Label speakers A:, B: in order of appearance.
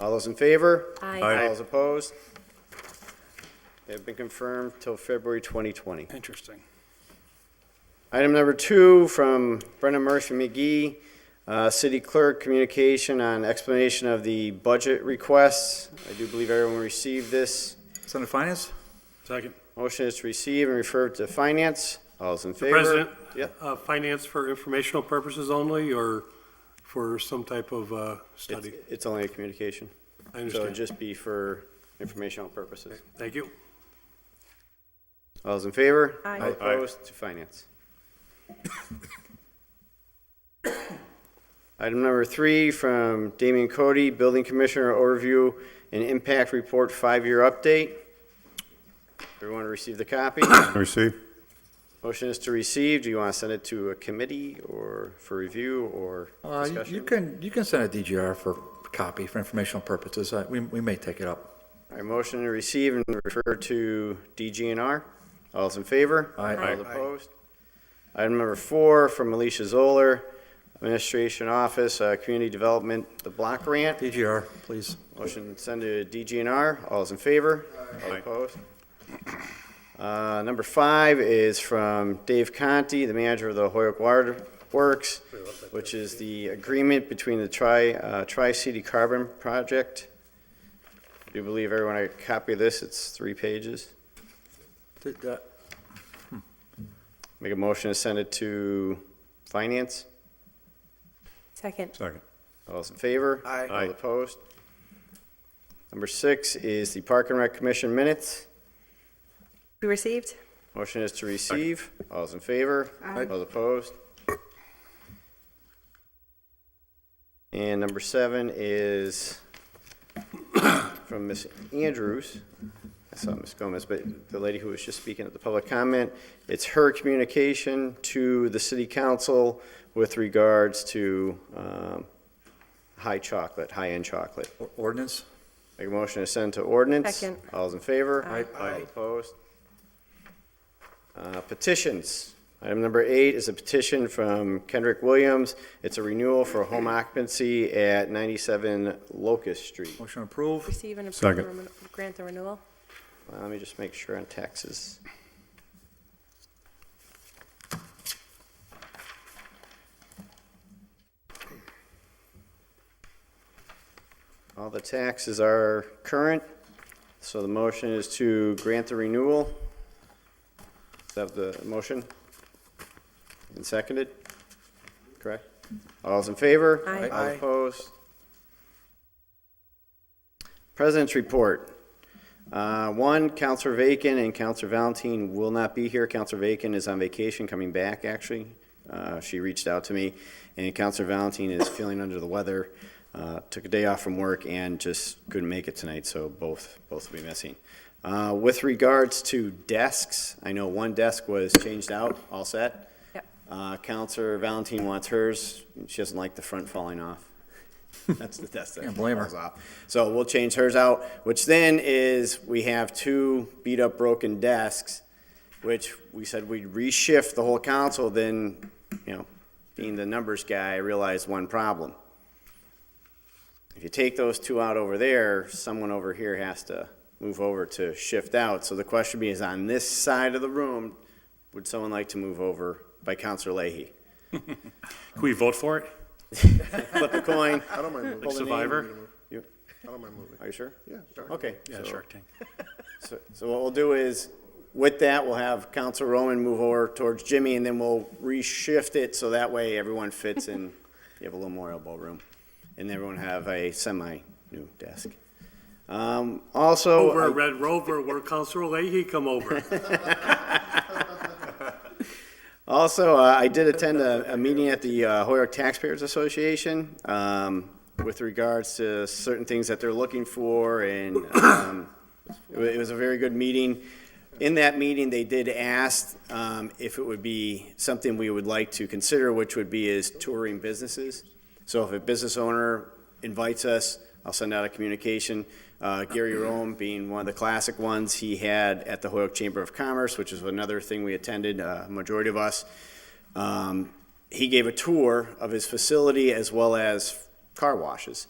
A: All those in favor?
B: Aye.
A: All those opposed? They've been confirmed till February 2020.
C: Interesting.
A: Item number two from Brendan Murphy McGee, uh, City Clerk, communication on explanation of the budget requests. I do believe everyone received this.
D: Senate Finance?
C: Second.
A: Motion is to receive and refer to finance. All those in
C: Mr.
A: favor?
C: President?
A: Yep.
C: uh, Finance for informational purposes only, or for some type of uh,
A: It's
C: study?
A: it's only a communication, so it'd
C: I understand.
A: just be for informational purposes.
C: Thank you.
A: All those in favor?
B: Aye.
A: All opposed to finance. Item number three from Damian Cody, Building Commissioner Overview and Impact Report Five-Year Update. Everyone received the copy?
E: Receive.
A: Motion is to receive. Do you want to send it to a committee or for review or
D: Uh, you- You
A: discussion?
D: can, you can send a DGR for copy for informational purposes. Uh, We, we may take it up.
A: All right, motion to receive and refer to DGNR. All those in favor?
D: Aye. Aye.
A: All opposed? Item number four from Alicia Zoller, Administration Office, uh, Community Development, the block grant.
D: DGR, please.
A: Motion to send to DGNR. All those in favor? All opposed? Uh, Number five is from Dave Conti, the manager of the Hoyok Water Works, which is the agreement between the Tri, uh, Tri-City Carbon Project. I Do believe everyone I copy this? It's three pages.
D: Did, uh,
A: Make a motion to send it to Finance.
B: Second.
E: Second.
A: All those in favor?
D: Aye. Aye.
A: All opposed? Number six is the Park and Rec Commission minutes.
B: Be received?
A: Motion is to receive. All those in favor?
B: Aye.
A: All opposed? And number seven is from Ms. Andrews. I saw Ms. Gomez, but the lady who was just speaking at the public comment, it's her communication to the city council with regards to um, high chocolate, high-end chocolate.
D: or- Ordinance?
A: Make a motion to send to ordinance.
B: Second.
A: All's in favor?
D: Aye.
A: All opposed? Uh, Petitions. Item number eight is a petition from Kendrick Williams. It's a renewal for home occupancy at 97 Locust Street.
D: Motion approved?
B: Receive and approve,
E: Second.
B: the remo- grant the renewal?
A: Uh, Let me just make sure on taxes. All the taxes are current, so the motion is to grant the renewal. Is that the motion? And seconded? Correct? All's in favor?
B: Aye.
A: All opposed? President's report. Uh, One, Counselor Vacan and Counselor Valentine will not be here. Counselor Vacan is on vacation, coming back, actually. Uh, She reached out to me, and Counselor Valentine is feeling under the weather, uh, took a day off from work and just couldn't make it tonight, so both, both will be missing. Uh, With regards to desks, I know one desk was changed out, all set.
B: Yep.
A: Uh, Counselor Valentine wants hers. She doesn't like the front falling off. That's the desk that
D: Can't blame her.
A: falls off. So we'll change hers out, which then is we have two beat up broken desks, which we said we'd reshift the whole council. Then, you know, being the numbers guy, I realized one problem. If you take those two out over there, someone over here has to move over to shift out. So the question being is on this side of the room, would someone like to move over by Counselor Leahy?
F: Can we vote for it?
A: Flip a coin.
E: I don't mind moving.
F: Like Survivor?
A: You-
E: I don't mind moving.
A: Are you sure?
E: Yeah, sure.
A: Okay.
F: Yeah,
A: so-
F: Shark Tank.
A: So, so what we'll do is, with that, we'll have Counselor Roman move over towards Jimmy, and then we'll reshift it, so that way everyone fits and you have a little more elbow room. And everyone have a semi-new desk. Um, also.
C: Over
A: I-
C: at Red Rover, where Counselor Leahy come over.
A: Also, uh, I did attend a, a meeting at the uh, Hoyok Taxpayers Association um, with regards to certain things that they're looking for, and um, it wa- it was a very good meeting. In that meeting, they did ask um, if it would be something we would like to consider, which would be is touring businesses. So if a business owner invites us, I'll send out a communication. Uh, Gary Rome being one of the classic ones, he had at the Hoyok Chamber of Commerce, which is another thing we attended, uh, majority of us. Um, he gave a tour of his facility as well as car washes.